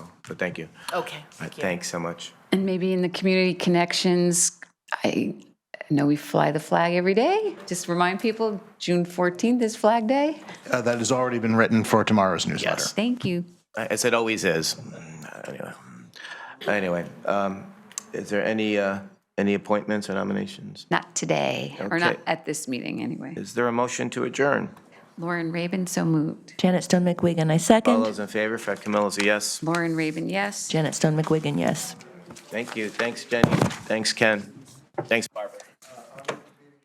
So thank you. Okay, All right, thank you. Thanks so much. And maybe in the community connections, I know we fly the flag every day. Just remind people, June 14th is Flag Day. Uh, That has already been written for tomorrow's newsletter. Thank you. Uh, As it always is. Mm, Anyway, anyway, um, is there any, uh, any appointments or nominations? Not today, or not Okay. at this meeting, anyway. Is there a motion to adjourn? Lauren Raven, so moved. Janet Stone McWiggin, I All second. those in favor, Fred Camillo's a yes. Lauren Raven, yes. Janet Stone McWiggin, yes. Thank you. Thanks, Jenny. Thanks, Ken. Thanks, Bob.